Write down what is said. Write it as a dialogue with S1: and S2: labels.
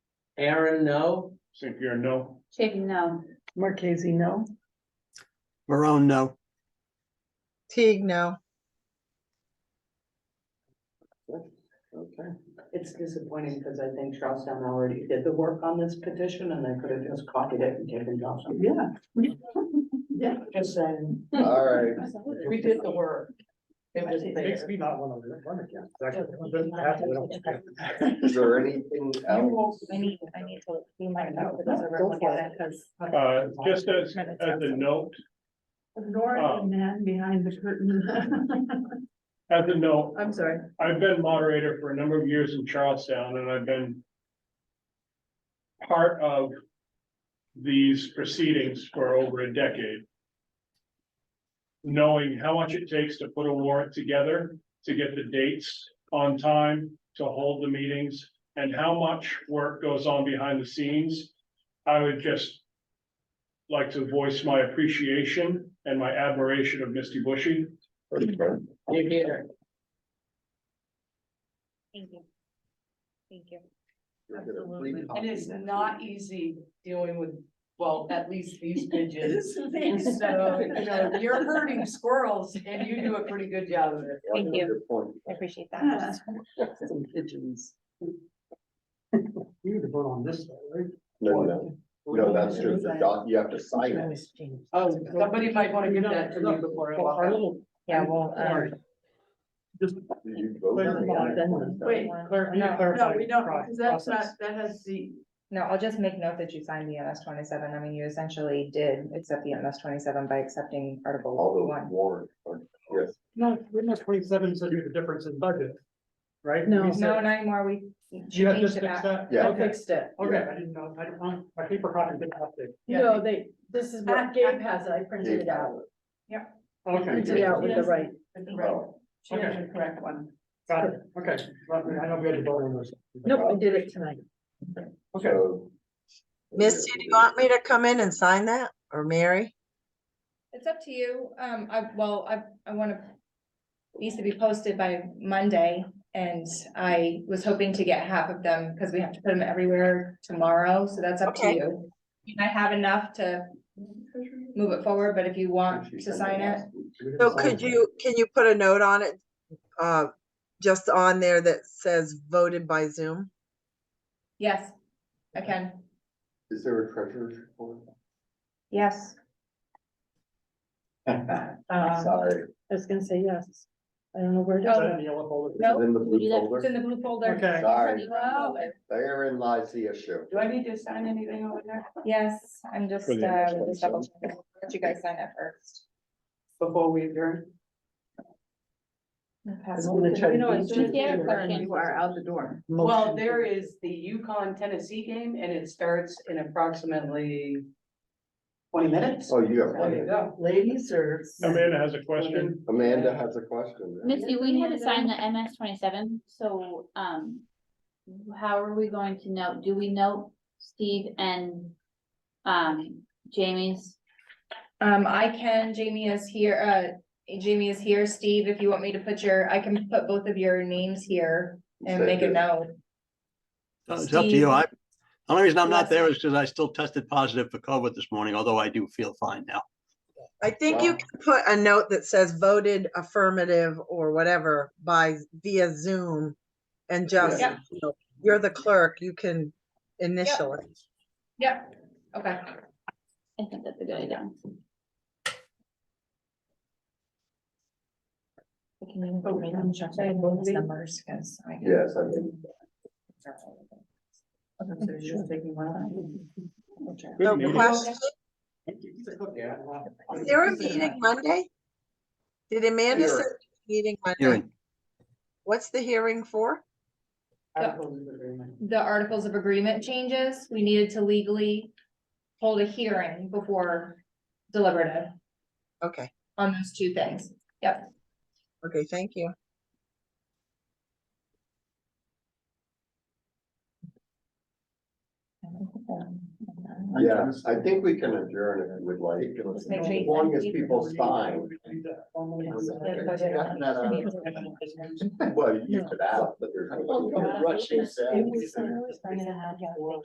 S1: Aaron, no?
S2: St. Pierre, no.
S3: Chafee, no.
S4: Marquezine, no.
S5: Marone, no.
S6: Teague, no.
S1: Okay.
S4: It's disappointing because I think Charlestown already did the work on this petition and they could have just copied it and taken it off. Yeah. Yeah, just saying.
S1: All right.
S4: We did the work. It was
S7: Makes
S4: there.
S7: me not wanna run again. Exactly. It doesn't have to, it don't-
S1: Is there anything else?
S3: I need, I need to, you might know.
S4: Go for it.
S2: Uh, just as, as a note,
S8: Ignore
S2: Oh.
S8: the man behind the curtain.
S2: as a note,
S8: I'm sorry.
S2: I've been moderator for a number of years in Charlestown and I've been part of these proceedings for over a decade. Knowing how much it takes to put a warrant together, to get the dates on time, to hold the meetings, and how much work goes on behind the scenes. I would just like to voice my appreciation and my admiration of Misty Bushy.
S1: You're here.
S3: Thank you. Thank you.
S1: Absolutely.
S4: It is not easy dealing with, well, at least these bitches. So, you know, you're herding squirrels and you do a pretty good job of it.
S3: Thank you.
S1: Good point.
S3: I appreciate that.
S4: Some pigeons.
S7: You need to vote on this, though, right?
S9: No, no, no, no, that's true. The doc, you have to sign it.
S4: Oh, somebody might wanna give that to me before I
S7: Well,
S4: walk
S7: Our
S4: out.
S7: little.
S6: Yeah, well,
S8: um,
S7: Sorry. Just.
S9: Did you vote
S7: Wait,
S9: on it?
S8: Wait,
S7: clarify- you
S6: No, no,
S8: No,
S7: clarify
S8: we
S7: the
S8: don't,
S7: pro-
S8: because that's not,
S7: process.
S8: that has the,
S6: No, I'll just make note that you signed the MS twenty-seven. I mean, you essentially did accept the MS twenty-seven by accepting Article
S9: All
S7: Oh,
S9: the
S6: one.
S9: warrant, or- yes,
S7: No, witness twenty-seven said you the difference in budget, right?
S8: No.
S7: We
S6: No,
S7: said-
S6: not anymore. We
S7: You have just
S6: changed it
S7: fixed
S6: back.
S7: that?
S9: Yeah.
S7: Okay,
S4: it.
S7: okay, I didn't know, I didn't, um, my paper copy didn't update.
S4: No,
S8: they, this is
S4: what-
S8: Gabe has, I printed
S9: Dave had it.
S7: Okay,
S9: it out
S8: with the right.
S7: She has
S8: the correct one.
S7: got it, okay, Well, I know we had to vote on this.
S8: I did it tonight.
S7: Okay,
S9: so.
S6: Misty,
S9: do
S6: you want me to come in and sign that or Mary? It's up to you. Um, I, well, I, I want to. Needs to be posted by Monday and I was hoping to get half of them because we have to put them everywhere tomorrow. So that's up to
S10: Okay.
S6: you. I have enough to move it forward, but if you want to sign it.
S10: So could you, can you put a note on it? Uh, just on there that says voted by Zoom?
S6: Yes, I can.
S9: Is there a treasurer's report?
S6: Yes.
S9: Sorry,
S8: Um, I was gonna say yes. I don't know where
S4: Oh.
S7: Is that in the yellow folder?
S6: No.
S9: it's in the blue
S6: It's in
S9: folder.
S6: the blue folder.
S7: Okay.
S9: Sorry.
S6: Wow.
S9: Therein lies the issue.
S4: Do I need to sign anything over there
S6: Yes, I'm just,
S2: For the
S6: uh,
S2: next one,
S6: just
S2: so.
S6: double checking. Let you guys sign up first.
S4: before we adjourn?
S8: You are out the door.
S4: Well, there is the Yukon Tennessee game and it starts in approximately twenty minutes.
S9: Oh, you have
S4: There you
S9: one.
S4: go.
S8: Ladies or?
S2: Amanda has a question.
S9: Amanda has a question.
S3: Missy, we had to sign the MS twenty-seven, so, um, how are we going to know? Do we know Steve and, um, Jamie's?
S6: Um, I can, Jamie is here, uh, Jamie is here, Steve, if you want me to put your, I can put both of your names here and
S9: Say
S6: make a
S9: this.
S6: note.
S5: Uh, It's up to
S6: Steve.
S5: you. I, the only reason I'm
S6: Yes.
S5: not there is because I still tested positive for COVID this morning, although I do feel fine now.
S10: I think you
S9: Wow.
S10: can put a note that says voted affirmative or whatever by via Zoom. And just,
S6: Yep.
S10: you know, you're the clerk, you can initial it.
S6: Yep, okay.
S3: I think that's a good idea.
S6: I can even put my name, check both numbers, because I can.
S9: Yes, I mean,
S2: Good
S10: So
S2: meeting.
S10: question,
S7: Yeah.
S10: is there a meeting Monday? Did Amanda say
S9: Hearing.
S10: meeting Monday?
S5: Hearing,
S10: What's the hearing for?
S6: The Articles of Agreement changes, we needed to legally hold a hearing before deliberative
S10: Okay,
S6: on those two things.
S10: okay, thank you.
S9: yeah, I think we can adjourn if you would like,
S6: Just make sure
S9: as
S6: you
S9: long as
S6: send-
S9: people sign.
S7: Oh,
S9: Well, you could ask, but there's. nobody here.
S7: Rushing sound.